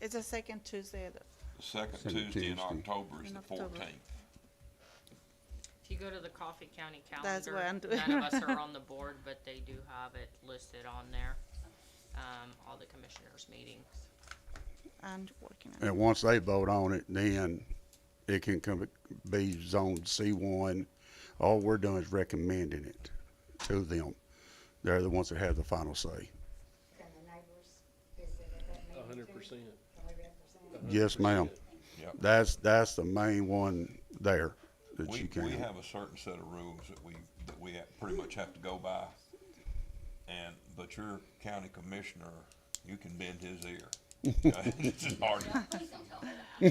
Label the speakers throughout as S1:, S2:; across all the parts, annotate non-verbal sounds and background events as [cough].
S1: It's the second Tuesday of the,
S2: Second
S3: Second
S2: Tuesday in
S3: Tuesday.
S2: October is
S1: In
S2: the
S1: October.
S2: fourteenth.
S4: If you go to the Coffee County
S1: That's what I'm
S4: calendar,
S1: doing.
S4: none of us are on
S1: [laughs]
S4: the board, but they do have it listed on there. Um, all the commissioners' meetings.
S1: and working on it.
S3: And once they vote on it, then it can come, be zoned C one. All we're doing is recommending it to them. They're the ones that have the final say.
S5: Can the neighbors visit at that meeting?
S6: A hundred
S5: too?
S6: percent.
S5: Can we represent?
S6: a hundred
S3: Yes, ma'am.
S6: percent.
S2: Yep.
S3: That's, that's the main one there that you
S2: We, we
S3: can.
S2: have a certain set of rules that we, that we ha- pretty much have to go by. And, but your county commissioner, you can bend his
S3: [laughs]
S2: ear. [laughs] It's just hard. The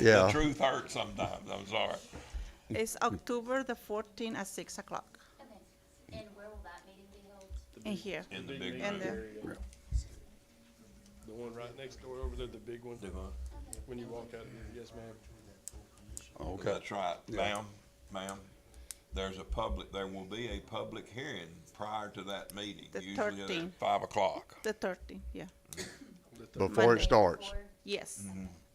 S3: Yeah,
S2: truth hurts sometimes, I'm sorry.
S1: It's October the fourteenth at six o'clock
S7: Okay, and where will that meeting be held?
S1: in here.
S2: In the
S6: Big
S2: big
S6: meeting
S1: And the-
S2: room.
S6: area. The one right next door over there, the big one, when you walk out, yes, ma'am.
S3: okay.
S2: That's right. Ma'am, ma'am, there's a public, there will be a public hearing prior to that meeting.
S1: The
S2: usually at
S1: 13th.
S2: Five o'clock.
S1: The thirteenth, yeah.
S6: The third-
S3: Before it starts.
S7: Or-
S1: Yes,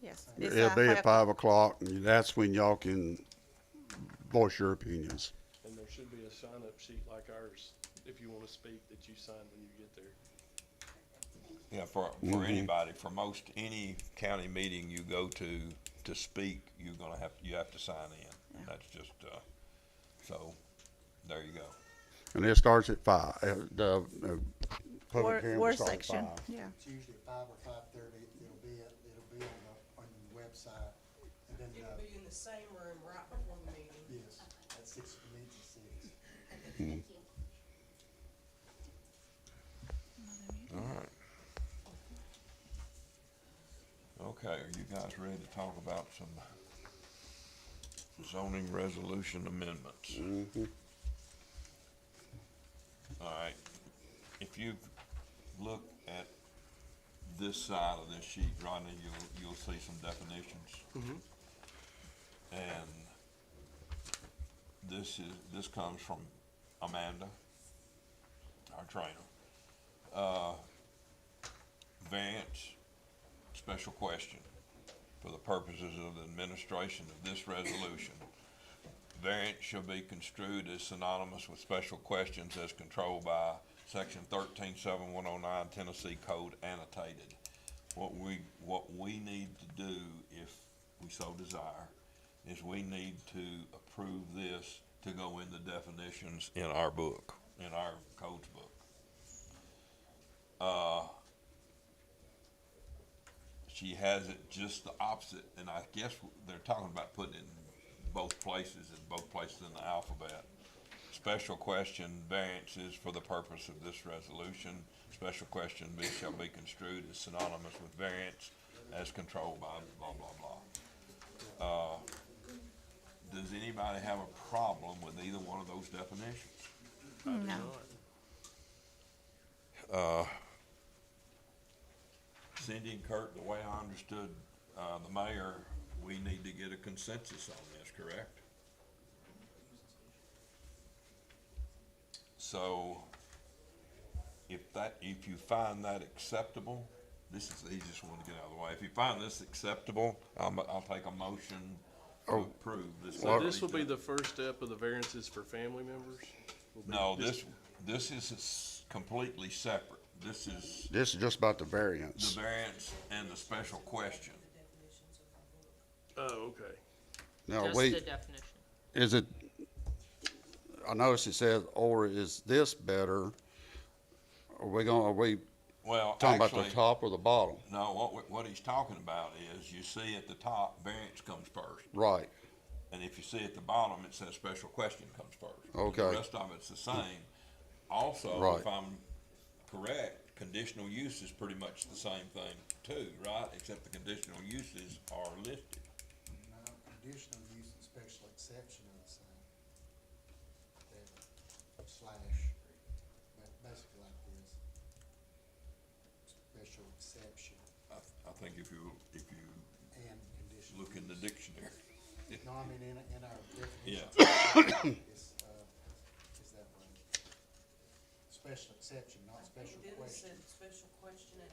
S1: yes. It's
S3: It'll
S1: at
S3: be
S1: five
S3: at five o'clock and that's when y'all can voice your opinions.
S6: And there should be a sign-up sheet like ours, if you wanna speak, that you sign when you get there.
S2: Yeah, for, for anybody, for most, any county meeting you go to, to speak, you're gonna have, you have to sign in. That's just, uh, so, there you go.
S3: And it starts at five, uh, the, uh,
S1: War,
S3: public hearing
S1: war
S3: will start at
S1: section,
S3: five.
S1: yeah.
S8: It's usually at five or five thirty, it'll be, at- it'll be on the, on the website, and then,
S9: It'll
S8: uh,
S9: be in the same room right before the meeting.
S8: yes, at six, meet at six.
S7: Thank you.
S2: Okay, are you guys ready to talk about some zoning resolution amendments? All right, if you look at this side of this sheet, Rodney, you'll, you'll see some definitions. And this is, this comes from Amanda, our trainer. Uh, Variance, special question. For the purposes of the administration of this resolution, variance shall be construed as synonymous with special questions as controlled by section thirteen seven one oh nine Tennessee Code annotated. What we, what we need to do, if we so desire, is we need to approve this to go in the definitions in our book, in our codes book. she has it just the opposite, and I guess they're talking about putting it in both places, in both places in the alphabet. Special question variances for the purpose of this resolution. Special question be- shall be construed as synonymous with variance as controlled by blah, blah, blah. Uh, Does anybody have a problem with either one of those definitions?
S1: No,
S2: Cindy and Kurt, the way I understood, uh, the mayor, we need to get a consensus on this, correct? So, if that, if you find that acceptable, this is the easiest one to get out of the way. If you find this acceptable, I'm, I'll take a motion to
S3: Oh,
S2: approve this.
S6: So this will be the first step of the variances for family members? Will be
S2: No, this, this is s- completely separate. This is
S3: This is just about the
S2: the
S3: variance.
S2: variance and the special question.
S6: Oh, okay.
S3: Now,
S4: Just
S3: we.
S4: the definition.
S3: Is it, I noticed it says, or is this better? Are we gonna, are we
S2: Well,
S3: talking about the
S2: actually-
S3: top or the bottom?
S2: No, what, we- what he's talking about is, you see at the top, variance comes first,
S3: Right,
S2: and if you see at the bottom, it says special question comes first. The
S3: Okay.
S2: rest of it's the same. Also,
S3: Right.
S2: if I'm correct, conditional use is pretty much the same thing too, right? Except the conditional uses are listed.
S8: Now, conditional use and special exception are the same. They're Slash, but basically like this. Special exception
S2: I, I think if you, if you
S8: and conditional.
S2: look in the
S8: use.
S2: dictionary.
S8: No, I mean, in, in our definition.
S2: Yeah.
S8: It's, uh, it's that way. Spe-
S10: special exception, not special
S8: Dennis
S10: question.
S8: said special question at